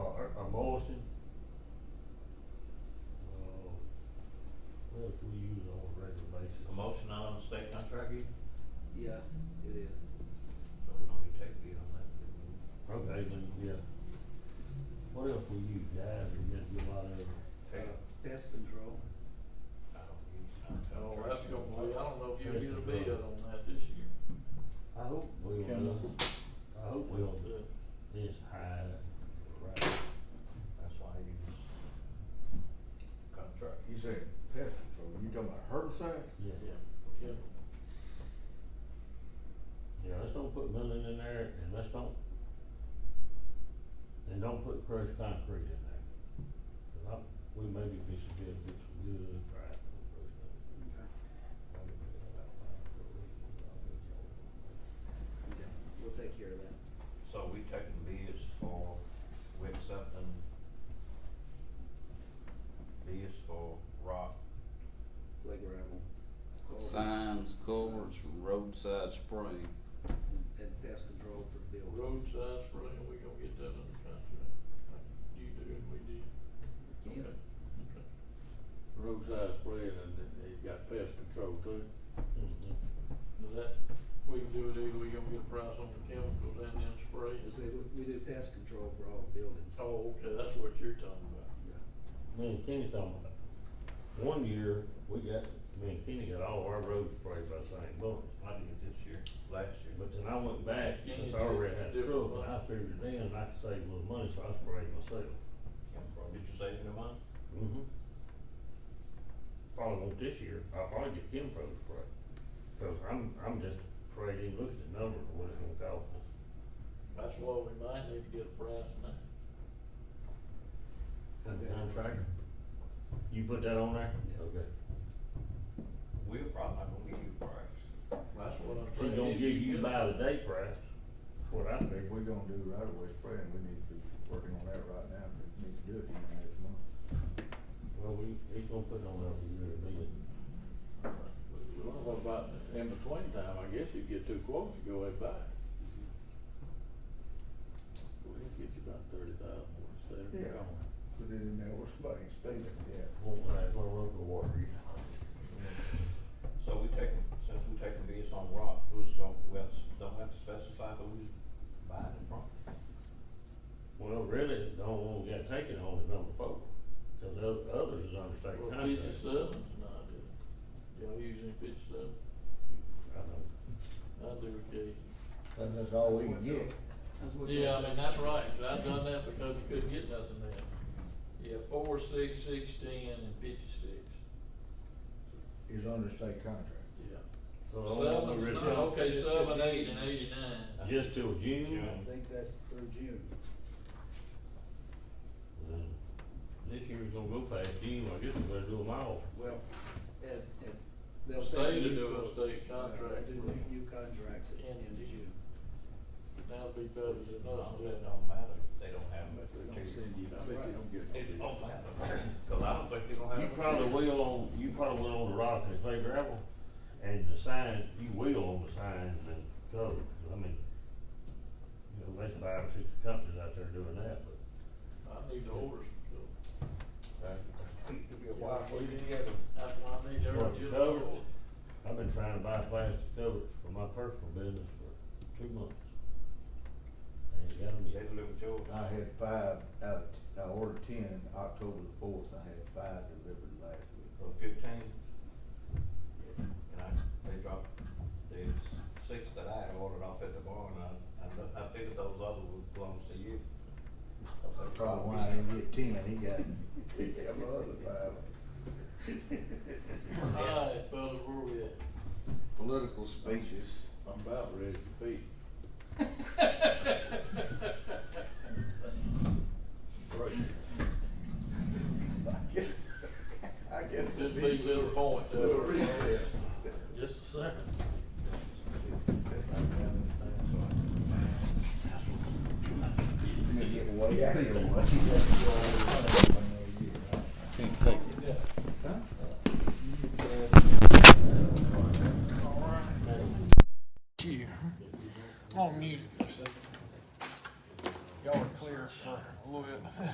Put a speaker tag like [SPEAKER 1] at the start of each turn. [SPEAKER 1] motion. Uh,
[SPEAKER 2] Well, if we use it on a regular basis.
[SPEAKER 1] A motion on the state contract, you,
[SPEAKER 3] Yeah, it is.
[SPEAKER 1] so we don't need to take bid on that.
[SPEAKER 2] Okay, then, yeah. What else we use, guys, we get a lot of,
[SPEAKER 1] Take it.
[SPEAKER 3] Uh, Pest control.
[SPEAKER 1] I don't use. I don't
[SPEAKER 4] Oh, that's gonna
[SPEAKER 1] contract.
[SPEAKER 4] be, I don't know if you'll get a
[SPEAKER 2] Mr.
[SPEAKER 4] bid
[SPEAKER 2] Trump.
[SPEAKER 4] on that this year.
[SPEAKER 2] I hope we'll
[SPEAKER 4] Can
[SPEAKER 2] do, I hope we'll do this high, right,
[SPEAKER 1] That's why I use contract.
[SPEAKER 5] You said pest control, you talking about herbicide?
[SPEAKER 2] yeah.
[SPEAKER 4] Yeah.
[SPEAKER 2] Yeah, let's don't put milling in there, and let's don't, and don't put crushed concrete in there. 'Cause I, we maybe be some good, get some good, right, from crushed concrete.
[SPEAKER 3] Okay.
[SPEAKER 2] Maybe we can have a lot of good reasons, I'll get y'all.
[SPEAKER 3] Okay, we'll take care of that.
[SPEAKER 1] So we taking bids for, we accepting bids for rock,
[SPEAKER 3] Play gravel. culverts,
[SPEAKER 6] Signs, culverts, roadside spraying.
[SPEAKER 3] And pest control for buildings.
[SPEAKER 4] Roadside spraying, we gonna get that under contract, like you do and we did.
[SPEAKER 3] Yeah.
[SPEAKER 4] Okay. Okay.
[SPEAKER 7] roadside spread and then they got pest control too.
[SPEAKER 2] Mhm.
[SPEAKER 4] Does that, we can do it either, we gonna get a price on the chemicals and then spray.
[SPEAKER 3] You say we- we do pest control for all buildings.
[SPEAKER 4] Oh, okay, that's what you're talking about.
[SPEAKER 3] Yeah.
[SPEAKER 2] Me and Kenny's talking about, it. one year, we got, me and Kenny got all our roads sprayed by St. Lawrence.
[SPEAKER 1] I did this year, last year.
[SPEAKER 2] But then I went back, since I already had a truck, and I figured then I could save a little money, so I sprayed myself.
[SPEAKER 1] Did you save any money?
[SPEAKER 2] Mm-hmm. Probably won't this year, I probably get Kim Pro spray, cause I'm, I'm just afraid to even look at the numbers of what it's gonna cost us.
[SPEAKER 4] That's why we might need to get a price now.
[SPEAKER 2] And the contractor, you put that on there? Okay.
[SPEAKER 1] We're probably not gonna give you a price.
[SPEAKER 4] That's what I'm saying.
[SPEAKER 2] She's gonna
[SPEAKER 4] If
[SPEAKER 2] give you
[SPEAKER 4] get-
[SPEAKER 2] by the day price, that's what I
[SPEAKER 5] If
[SPEAKER 2] figured.
[SPEAKER 5] we're gonna do right away spraying, we need to be working on that right now, we need to do it in the next month.
[SPEAKER 2] Well, we, he's gonna put it on there for you to read it.
[SPEAKER 7] Well, what about in between time, I guess you get two quotes to go way by. We'll get you about thirty thousand more instead of
[SPEAKER 5] Yeah.
[SPEAKER 7] gone.
[SPEAKER 5] Put it in there, we're spraying, stay there, yeah.
[SPEAKER 2] Won't last long over the water, you know.
[SPEAKER 1] So we taking, since we taking bids on rock, who's gonna, we have, to- don't have to specify who's buying it from?
[SPEAKER 2] Well, really, the only one we got taken on is number four, cause the oth- others is under state
[SPEAKER 4] Well,
[SPEAKER 2] contract.
[SPEAKER 4] fifty-seven's not it. Y'all using fifty-seven,
[SPEAKER 2] I know.
[SPEAKER 4] I do occasionally.
[SPEAKER 5] That's just all we can
[SPEAKER 3] what's
[SPEAKER 5] get.
[SPEAKER 3] up. That's what's
[SPEAKER 4] Yeah, I
[SPEAKER 3] up.
[SPEAKER 4] mean, that's right, 'cause I've done that because you couldn't get nothing else. Yeah, four, six, six, ten, and fifty-six,
[SPEAKER 5] Is under state contract.
[SPEAKER 4] yeah.
[SPEAKER 2] So the only one we
[SPEAKER 4] Seven,
[SPEAKER 2] really
[SPEAKER 4] no,
[SPEAKER 3] just-
[SPEAKER 4] okay,
[SPEAKER 3] just
[SPEAKER 4] seven,
[SPEAKER 3] to
[SPEAKER 4] eight,
[SPEAKER 3] June.
[SPEAKER 4] and eighty-nine.
[SPEAKER 2] just till June,
[SPEAKER 1] June.
[SPEAKER 3] I think that's through June.
[SPEAKER 2] then this year's gonna go past June, I guess we're gonna do them all.
[SPEAKER 3] Well, and, and they'll
[SPEAKER 4] State
[SPEAKER 3] take
[SPEAKER 4] to
[SPEAKER 3] new
[SPEAKER 4] do a
[SPEAKER 3] quotes.
[SPEAKER 4] state
[SPEAKER 3] Yeah,
[SPEAKER 4] contract.
[SPEAKER 3] They do new- new contracts at the
[SPEAKER 4] In
[SPEAKER 3] end of
[SPEAKER 4] June.
[SPEAKER 3] June.
[SPEAKER 4] That'd be better than
[SPEAKER 1] No,
[SPEAKER 4] nothing.
[SPEAKER 1] it don't matter, if they don't have
[SPEAKER 7] But they don't
[SPEAKER 1] it.
[SPEAKER 7] send you, I bet you don't get.
[SPEAKER 1] It don't matter, cause I don't think they're gonna
[SPEAKER 2] You
[SPEAKER 1] have.
[SPEAKER 2] probably will on, you probably will on the rock and clay gravel, and the signs, you will on the signs and covers, 'cause I mean, you know, there's five or six companies out there doing that, but
[SPEAKER 4] I need the orders, so
[SPEAKER 5] It'll be a while before you get
[SPEAKER 4] that's why I need
[SPEAKER 2] Well,
[SPEAKER 4] every
[SPEAKER 2] the
[SPEAKER 4] bit of
[SPEAKER 2] covers.
[SPEAKER 4] oil.
[SPEAKER 2] I've been trying to buy plastic covers for my personal business for two months. I ain't got 'em
[SPEAKER 1] They
[SPEAKER 2] yet.
[SPEAKER 1] deliver yours.
[SPEAKER 5] I had five out, I ordered ten in October the fourth, I had five delivered last week.
[SPEAKER 1] Or fifteen. And I, they dropped, there's six that I had ordered off at the bar and I, I, I figured those other would belongs to you.
[SPEAKER 5] That's probably why I didn't get ten, he got, he got my other five.
[SPEAKER 4] Alright, fellas, where we at?
[SPEAKER 6] Political speeches.
[SPEAKER 7] I'm about ready to feed. Right.
[SPEAKER 5] I guess, I guess.
[SPEAKER 4] Should be to the point, that's
[SPEAKER 5] Little
[SPEAKER 4] where it's at.
[SPEAKER 5] recess.
[SPEAKER 7] Just a second.
[SPEAKER 5] You get way out of your way.